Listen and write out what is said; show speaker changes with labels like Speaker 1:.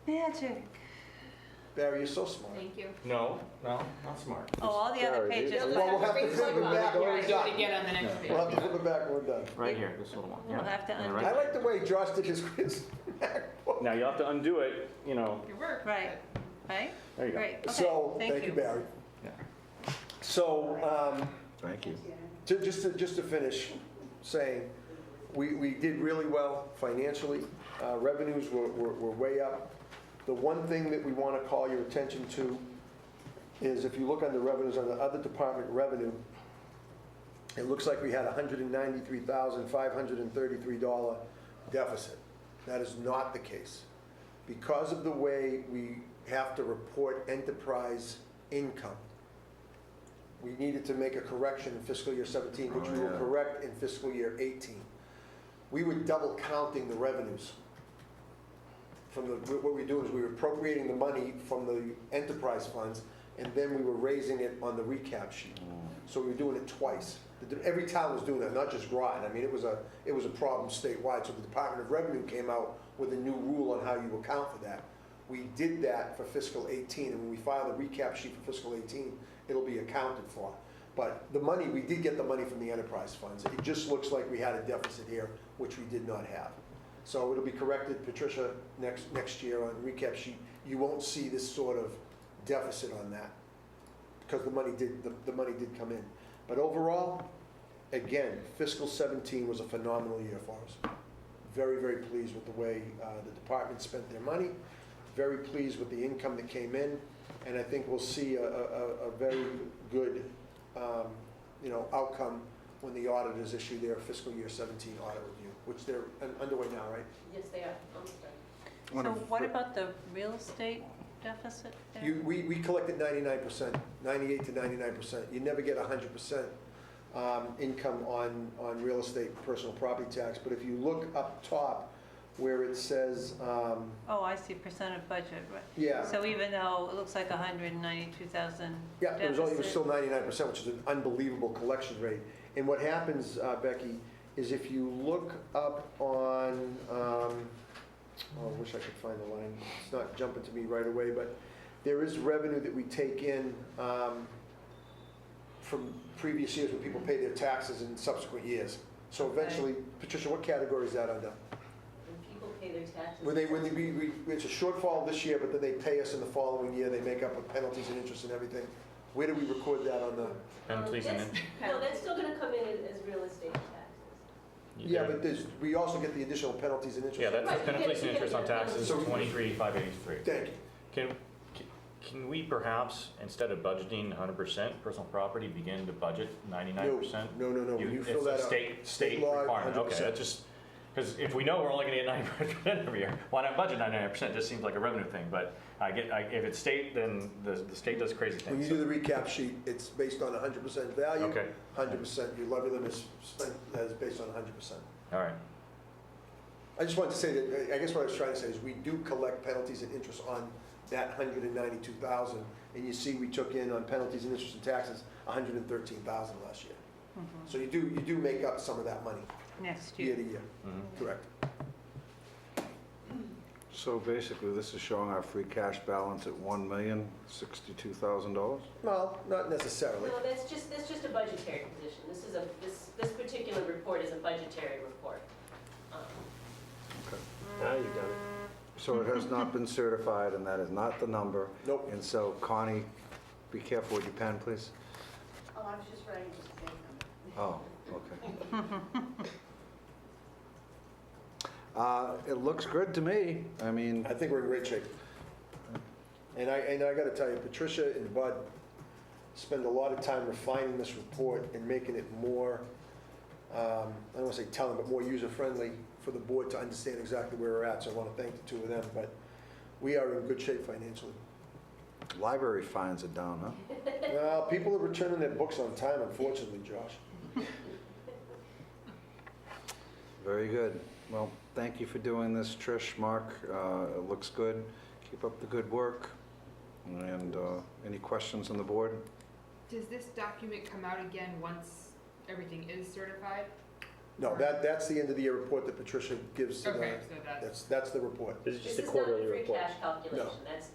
Speaker 1: magic.
Speaker 2: Barry, you're so smart.
Speaker 3: Thank you.
Speaker 4: No, no, not smart.
Speaker 1: Oh, all the other
Speaker 5: Sorry, dude.
Speaker 1: pages.
Speaker 2: Well, we'll have to flip it back when we're
Speaker 3: Yeah, I do it
Speaker 2: done.
Speaker 3: again on the next
Speaker 2: We'll have
Speaker 3: page.
Speaker 2: to flip it back when we're done.
Speaker 5: Right here, this little one.
Speaker 1: We'll
Speaker 5: yeah.
Speaker 1: have to
Speaker 5: And
Speaker 1: undo
Speaker 2: I
Speaker 5: right
Speaker 2: like the way Josh did his quiz.
Speaker 5: there. Now you'll have to undo it, you know,
Speaker 3: Your work.
Speaker 1: Right, right?
Speaker 5: there you go.
Speaker 1: Great,
Speaker 2: So,
Speaker 1: okay,
Speaker 2: thank you, Barry. So, um,
Speaker 5: Thank you.
Speaker 2: Ju- Just to, just to finish saying, we, we did really well financially. Uh, Revenues were, were were way up. The one thing that we want to call your attention to is if you look on the revenues, on the other department revenue, it looks like we had a $193,533 deficit. That is not the case. Because of the way we have to report enterprise income, we needed to make a correction in fiscal year 17, which we will correct in fiscal year 18. We were double counting the revenues. From the, what we do is we were appropriating the money from the enterprise funds, and then we were raising it on the recap sheet. So we were doing it twice. The- Every town was doing that, not just Groton. I mean, it was a, it was a problem statewide, so the Department of Revenue came out with a new rule on how you account for that. We did that for fiscal 18, and when we file the recap sheet for fiscal 18, it'll be accounted for. But the money, we did get the money from the enterprise funds. It just looks like we had a deficit here, which we did not have. So it'll be corrected, Patricia, next, next year on recap sheet. You won't see this sort of deficit on that, because the money did, the, the money did come in. But overall, again, fiscal 17 was a phenomenal year for us. Very, very pleased with the way uh, the department spent their money, very pleased with the income that came in, and I think we'll see a, a, a- a very good, um, you know, outcome when the auditors issue their fiscal year 17 audit review, which they're un- underway now, right?
Speaker 3: Yes, they are. Almost done.
Speaker 1: So what about the real estate deficit there?
Speaker 2: You, we, we collected ninety-nine percent, ninety-eight to ninety-nine percent. You never get hundred percent, um, income on, on real estate, personal property tax. But if you look up top where it says, um,
Speaker 1: Oh, I see, percent of budget, right.
Speaker 2: yeah,
Speaker 1: So even though it looks like 192,000
Speaker 2: yeah, it was, only- it was
Speaker 1: deficit,
Speaker 2: still ninety-nine percent, which is an unbelievable collection rate. And what happens, uh, Becky, is if you look up on, um, oh, I wish I could find the line. It's not jumping to me right away, but there is revenue that we take in, um, from previous years when people pay their taxes in subsequent years. So eventually, Patricia, what category is that under?
Speaker 6: When people pay their taxes.
Speaker 2: When they, when we, we, it's a shortfall this year, but then they pay us in the following year, they make up with penalties and interest and everything. Where do we record that on the?
Speaker 4: And please, and
Speaker 6: That's- No, that's still gonna come in as, as real estate taxes.
Speaker 2: Yeah, but there's, we also get the additional penalties and interest.
Speaker 4: Yeah, that's
Speaker 6: Right, you
Speaker 4: penalties
Speaker 6: get- you
Speaker 4: and
Speaker 6: get
Speaker 4: interest on
Speaker 6: the-
Speaker 4: taxes,
Speaker 2: So-
Speaker 4: twenty-three, five eighty-three.
Speaker 2: Thank you.
Speaker 4: Can, can- can we perhaps, instead of budgeting hundred percent personal property, begin to budget ninety-nine percent?
Speaker 2: No, no, no, when you fill that
Speaker 4: It's a
Speaker 2: out.
Speaker 4: state,
Speaker 2: state
Speaker 4: state
Speaker 2: law,
Speaker 4: requirement, okay,
Speaker 2: 100%.
Speaker 4: that's just, because if we know we're only gonna get ninety-nine percent every year, why not budget ninety-nine percent? Just seems like a revenue thing, but I get, I, if it's state, then the, the state does crazy things.
Speaker 2: When you
Speaker 4: so-
Speaker 2: do the recap sheet, it's based on hundred percent value.
Speaker 4: Okay.
Speaker 2: Hundred percent, your levy limit is spent, is based on hundred percent.
Speaker 4: All right,
Speaker 2: I just wanted to say that, I guess what I was trying to say is we do collect penalties and interest on that hundred and ninety-two thousand. And you see, we took in on penalties and interest and taxes, hundred and thirteen thousand last year. So you do, you do make up some of that money
Speaker 1: Mm-hmm. next
Speaker 2: year
Speaker 1: year.
Speaker 2: to year,
Speaker 4: mhm.
Speaker 2: correct?
Speaker 7: So basically, this is showing our free cash balance at $1,062,000?
Speaker 2: Well, not necessarily.
Speaker 6: No, that's just, that's just a budgetary position. This is a, this, this particular report is a budgetary report. Um,
Speaker 5: Now you've done it.
Speaker 7: So it has not been certified, and that is not the number.
Speaker 2: Nope.
Speaker 7: And so Connie, be careful with your pen, please.
Speaker 8: Oh, I was just writing just the same number.
Speaker 7: Oh, okay. Uh, It looks good to me. I mean,
Speaker 2: I think we're in great shape. And I, and I gotta tell you, Patricia and Bud spend a lot of time refining this report and making it more, um, I don't wanna say telling, but more user-friendly for the board to understand exactly where we're at, so I wanna thank the two of them, but we are in good shape financially.
Speaker 7: library fines are down, huh?
Speaker 2: Well, people are returning their books on time, unfortunately, Josh.
Speaker 7: Very good. Well, thank you for doing this, Trish, Mark. Uh, It looks good. Keep up the good work. And uh, any questions on the board?
Speaker 3: Does this document come out again once everything is certified?
Speaker 2: No, that, that's the end of the year report that Patricia gives to
Speaker 3: Okay,
Speaker 2: the,
Speaker 3: so that's.
Speaker 2: that's, that's the report.
Speaker 5: This is
Speaker 6: This
Speaker 5: just a
Speaker 6: is not
Speaker 5: quarterly
Speaker 6: the free
Speaker 5: report.
Speaker 6: cash calculation, that's